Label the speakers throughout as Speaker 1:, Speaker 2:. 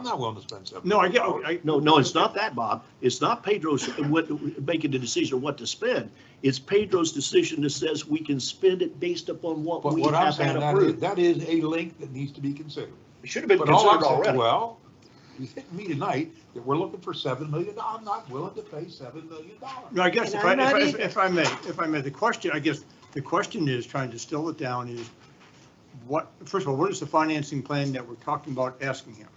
Speaker 1: I'm not willing to spend seven.
Speaker 2: No, I get, oh, I,
Speaker 3: No, no, it's not that, Bob. It's not Pedro's, uh, what, making the decision what to spend. It's Pedro's decision that says we can spend it based upon what
Speaker 1: But
Speaker 3: we
Speaker 1: what I'm
Speaker 3: have
Speaker 1: saying,
Speaker 3: had
Speaker 1: that is,
Speaker 3: approved.
Speaker 1: that is a link that needs to be considered.
Speaker 3: It Should have been
Speaker 1: But all I'm
Speaker 3: considered
Speaker 1: saying,
Speaker 3: already.
Speaker 1: well, you hit me tonight that we're looking for seven million, I'm not willing to pay seven million dollars.
Speaker 2: no, I guess
Speaker 4: And
Speaker 2: if I,
Speaker 4: I'm
Speaker 2: if I-
Speaker 4: not
Speaker 2: if-
Speaker 4: either.
Speaker 2: if I may, if I may, the question, I guess, the question is, trying to distill it down is what, first of all, what is the financing plan that we're talking about asking him?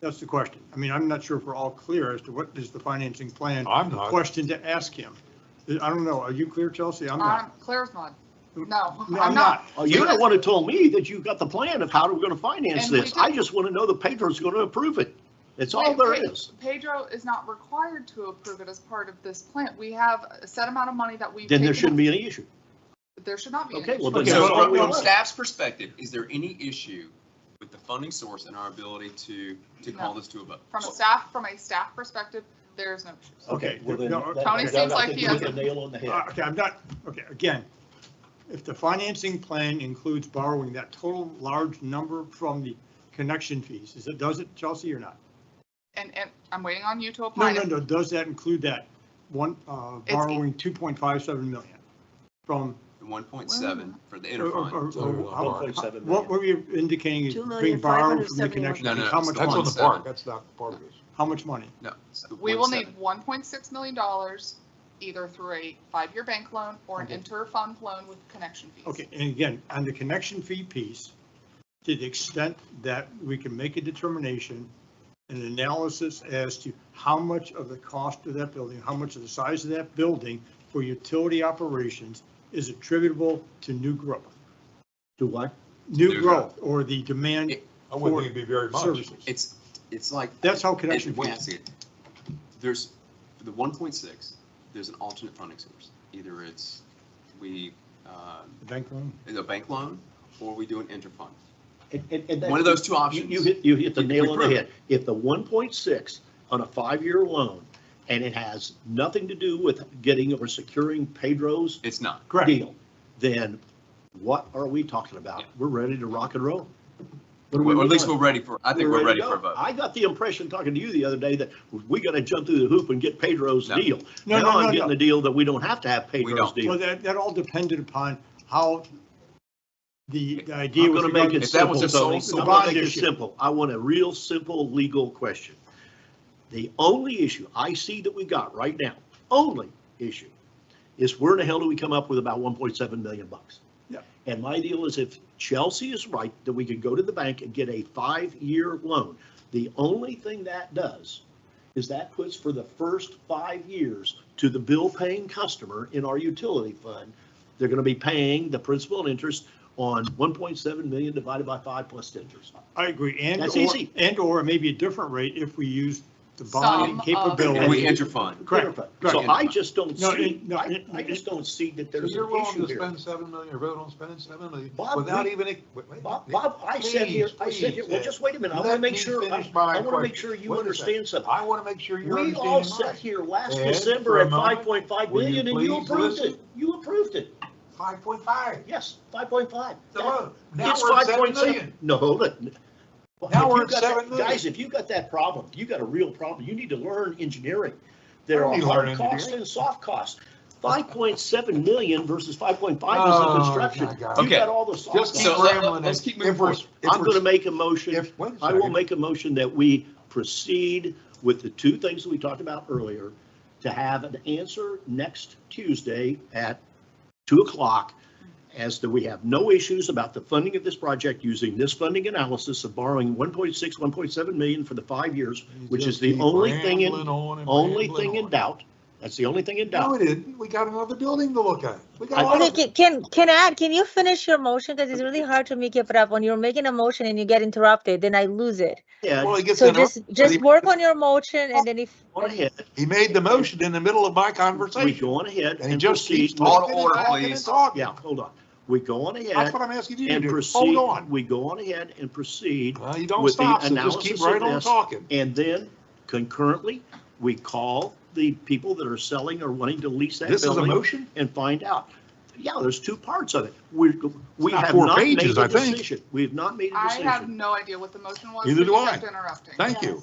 Speaker 2: That's the question. I mean, I'm not sure if we're all clear as to what is the financing plan
Speaker 1: I'm not,
Speaker 2: question to ask him. I don't know. Are you clear, Chelsea? I'm
Speaker 5: I'm
Speaker 2: not.
Speaker 5: clear as mud. No,
Speaker 2: No,
Speaker 5: I'm not.
Speaker 3: Oh, You're the one who told me that you got the plan of how we're gonna finance
Speaker 5: And we
Speaker 3: this. I
Speaker 5: did.
Speaker 3: just want to know that Pedro's gonna approve it. That's all
Speaker 5: Wait,
Speaker 3: there
Speaker 5: wait.
Speaker 3: is.
Speaker 5: Pedro is not required to approve it as part of this plant. We have a set amount of money that we've.
Speaker 3: Then there
Speaker 5: taken
Speaker 3: shouldn't
Speaker 5: out.
Speaker 3: be any issue.
Speaker 5: There should not be. an
Speaker 3: Okay, well,
Speaker 5: issue.
Speaker 3: then
Speaker 2: Okay,
Speaker 3: that's
Speaker 2: well,
Speaker 3: all
Speaker 6: So
Speaker 2: well,
Speaker 3: we
Speaker 6: from
Speaker 2: well,
Speaker 3: want.
Speaker 6: staff's perspective, is there any issue with the funding source and our ability to, to call
Speaker 5: No.
Speaker 6: this to a vote?
Speaker 5: From a staff, from a staff perspective, there's no issues.
Speaker 3: Okay. well, then
Speaker 2: No,
Speaker 3: that-
Speaker 2: Tony
Speaker 3: that-
Speaker 5: seems
Speaker 3: I
Speaker 5: like
Speaker 3: think
Speaker 5: he
Speaker 3: you hit
Speaker 5: has-
Speaker 3: the Nail on the head.
Speaker 2: Uh, Okay, I'm not, okay, again, if the financing plan includes borrowing that total large number from the connection fees, is it, does it, Chelsea, or not?
Speaker 5: And, and I'm waiting on you to
Speaker 2: No,
Speaker 5: apply.
Speaker 2: no, no, does that include that one, uh,
Speaker 5: It's-
Speaker 2: borrowing 2.57 million from,
Speaker 6: The one point
Speaker 5: Mm.
Speaker 6: seven for the inter
Speaker 2: or- or-
Speaker 6: fund.
Speaker 2: or-
Speaker 1: So,
Speaker 2: or how-
Speaker 3: 1.7
Speaker 2: what
Speaker 3: million.
Speaker 2: were you indicating is
Speaker 4: Two
Speaker 2: being
Speaker 4: million, five hundred
Speaker 2: borrowed from the
Speaker 4: seventy-one.
Speaker 2: connection?
Speaker 6: No, no,
Speaker 2: fees?
Speaker 6: no,
Speaker 2: How
Speaker 6: it's
Speaker 2: much
Speaker 6: the
Speaker 1: that's on
Speaker 2: money?
Speaker 1: the park, that's not part of this.
Speaker 2: How much money?
Speaker 6: No. it's the
Speaker 5: We will
Speaker 6: 1.7.
Speaker 5: need one point six million dollars either through a five-year bank loan or an
Speaker 2: Okay.
Speaker 5: inter-fund loan with connection fees.
Speaker 2: Okay, and again, on the connection fee piece, to the extent that we can make a determination, an analysis as to how much of the cost of that building, how much of the size of that building for utility operations is attributable to new growth,
Speaker 3: Do what?
Speaker 2: new
Speaker 6: New
Speaker 2: growth, or the demand
Speaker 6: It-
Speaker 1: I wouldn't
Speaker 2: For
Speaker 1: think it'd be very much.
Speaker 2: services.
Speaker 6: It's, it's like.
Speaker 2: That's how
Speaker 6: Wait,
Speaker 2: connection
Speaker 6: wait,
Speaker 2: fees.
Speaker 6: see it. There's, for the one point six, there's an alternate funding source. Either it's, we, uh,
Speaker 2: Bank loan.
Speaker 6: a bank loan, or we do an inter-fund.
Speaker 3: And- and- and that-
Speaker 6: One of those two
Speaker 3: You,
Speaker 6: options.
Speaker 3: you hit, you hit the
Speaker 6: You-
Speaker 3: nail
Speaker 6: you
Speaker 3: on the
Speaker 6: prove
Speaker 3: head. If the one point six on a five-year loan, and it has nothing to do with getting or securing Pedro's
Speaker 6: It's not.
Speaker 2: Correct.
Speaker 3: deal, then what are we talking about?
Speaker 6: Yeah.
Speaker 3: We're ready to rock and roll. What are we
Speaker 6: Or at least we're
Speaker 3: doing?
Speaker 6: ready for, I think we're ready
Speaker 3: to
Speaker 6: for a
Speaker 3: go.
Speaker 6: vote.
Speaker 3: I got the impression, talking to you the other day, that we gotta jump through the hoop and get Pedro's
Speaker 6: No.
Speaker 3: deal.
Speaker 2: No,
Speaker 3: Now
Speaker 2: no,
Speaker 3: I'm
Speaker 2: no,
Speaker 3: getting
Speaker 2: no.
Speaker 3: the deal that we don't have to have Pedro's
Speaker 6: don't.
Speaker 2: Well,
Speaker 3: deal.
Speaker 2: that, that all depended upon how the the idea
Speaker 3: I'm
Speaker 2: was.
Speaker 3: gonna make it
Speaker 6: If that was
Speaker 3: simple,
Speaker 6: a sole
Speaker 3: Tony.
Speaker 6: source-
Speaker 3: I'm gonna make it
Speaker 2: Bond issue.
Speaker 3: simple. I want a real simple legal question. The only issue I see that we got right now, only issue, is where in the hell do we come up with about one point seven million bucks?
Speaker 2: Yeah.
Speaker 3: And my deal is if Chelsea is right, that we could go to the bank and get a five-year loan. The only thing that does is that puts for the first five years to the bill-paying customer in our utility fund, they're gonna be paying the principal and interest on one point seven million divided by five plus interest.
Speaker 2: I agree, and
Speaker 3: That's
Speaker 2: or,
Speaker 3: easy.
Speaker 2: and or maybe a different rate if we use the bonding
Speaker 5: Some of-
Speaker 6: And we
Speaker 2: capability.
Speaker 6: inter-fund.
Speaker 2: Correct, correct.
Speaker 3: So I just don't
Speaker 2: No,
Speaker 3: see,
Speaker 2: it- no,
Speaker 3: I,
Speaker 2: it-
Speaker 3: I just don't see that
Speaker 1: So
Speaker 3: there's
Speaker 1: you're
Speaker 3: an
Speaker 1: willing
Speaker 3: issue
Speaker 1: to
Speaker 3: here.
Speaker 1: spend seven million, or vote on spending seven million
Speaker 3: Bob,
Speaker 1: without
Speaker 3: we-
Speaker 1: even. a- wait, wait,
Speaker 3: Bob,
Speaker 1: Nick,
Speaker 3: Bob, I said here, I said here, well,
Speaker 1: please,
Speaker 3: just wait a minute, I wanna
Speaker 1: let
Speaker 3: make
Speaker 1: me
Speaker 3: sure, I,
Speaker 1: finish my
Speaker 3: I wanna make
Speaker 1: question.
Speaker 3: sure you
Speaker 1: Wait a
Speaker 3: understand something.
Speaker 1: I want to make sure you're
Speaker 3: We all
Speaker 1: understanding
Speaker 3: sat
Speaker 1: mine.
Speaker 3: here last
Speaker 1: Ed,
Speaker 3: December
Speaker 1: for a
Speaker 3: at
Speaker 1: moment,
Speaker 3: five point five
Speaker 1: will you
Speaker 3: million and you
Speaker 1: please
Speaker 3: approved
Speaker 1: listen?
Speaker 3: it, you approved it,
Speaker 1: Five point five,
Speaker 3: yes, five point five.
Speaker 1: the loan. Now
Speaker 3: It's
Speaker 1: we're at
Speaker 3: five
Speaker 1: seven
Speaker 3: point
Speaker 1: million.
Speaker 3: seven. No, hold it.
Speaker 1: Now we're at seven million.
Speaker 3: Guys, if you got that problem, you got a real problem. You need to learn engineering.
Speaker 1: I
Speaker 3: There
Speaker 1: don't
Speaker 3: are
Speaker 1: need to
Speaker 3: hard
Speaker 1: learn
Speaker 3: costs
Speaker 1: engineering.
Speaker 3: and soft costs. Five point seven million versus five point five is
Speaker 1: Oh,
Speaker 3: the construction.
Speaker 1: my God.
Speaker 3: You
Speaker 6: Okay.
Speaker 3: got all the soft
Speaker 1: Just keep
Speaker 6: So
Speaker 3: costs.
Speaker 6: let-
Speaker 1: rambling.
Speaker 6: let's
Speaker 1: and
Speaker 6: keep moving
Speaker 1: if we're-
Speaker 6: forward.
Speaker 1: if
Speaker 3: I'm
Speaker 1: we're-
Speaker 3: gonna make a motion,
Speaker 1: If, wait a
Speaker 3: I will
Speaker 1: second.
Speaker 3: make a motion that we proceed with the two things that we talked about earlier to have an answer next Tuesday at two o'clock as that we have no issues about the funding of this project using this funding analysis of borrowing 1.6, 1.7 million for the five years,
Speaker 1: You
Speaker 3: which
Speaker 1: just
Speaker 3: is the
Speaker 1: keep
Speaker 3: only thing in,
Speaker 1: rambling on and
Speaker 3: only
Speaker 1: rambling
Speaker 3: thing in
Speaker 1: on.
Speaker 3: doubt. That's the only thing in
Speaker 1: No,
Speaker 3: doubt.
Speaker 1: we didn't. We got another building to look at. We got.
Speaker 3: I-
Speaker 1: a lot
Speaker 4: Okay,
Speaker 1: of-
Speaker 4: ca- can, can I, can you finish your motion? Because it's really hard to make it up. When you're making a motion and you get interrupted, then I lose it.
Speaker 3: Yeah,
Speaker 1: Well, he gets
Speaker 4: So
Speaker 1: in,
Speaker 4: just, just work on your motion and then if.
Speaker 3: go ahead.
Speaker 1: he made the motion in the middle of my
Speaker 3: We
Speaker 1: conversation.
Speaker 3: go on ahead
Speaker 1: And he
Speaker 3: and
Speaker 1: just keeps
Speaker 3: proceed.
Speaker 6: Out of
Speaker 1: talking and
Speaker 6: order,
Speaker 1: talking and
Speaker 6: please.
Speaker 1: talking.
Speaker 3: Yeah, hold on. We go on
Speaker 1: That's
Speaker 3: ahead
Speaker 1: what I'm asking you to
Speaker 3: and
Speaker 1: do.
Speaker 3: proceed.
Speaker 1: Hold on.
Speaker 3: We go on ahead and proceed
Speaker 1: Well, you don't
Speaker 3: with the
Speaker 1: stop, so just keep
Speaker 3: analysis of
Speaker 1: right on
Speaker 3: this.
Speaker 1: talking.
Speaker 3: And then concurrently, we call the people that are selling or wanting to lease that
Speaker 1: This is a
Speaker 3: building
Speaker 1: motion?
Speaker 3: and find out yeah, there's two parts of it. We, we
Speaker 1: About
Speaker 3: have
Speaker 1: four
Speaker 3: not made
Speaker 1: pages, I
Speaker 3: a
Speaker 1: think.
Speaker 3: decision. We have not made a
Speaker 5: I
Speaker 3: decision.
Speaker 5: have no idea what the motion was.
Speaker 1: Neither
Speaker 5: so
Speaker 1: do
Speaker 5: you
Speaker 1: I.
Speaker 5: kept Interrupting.
Speaker 1: Thank you.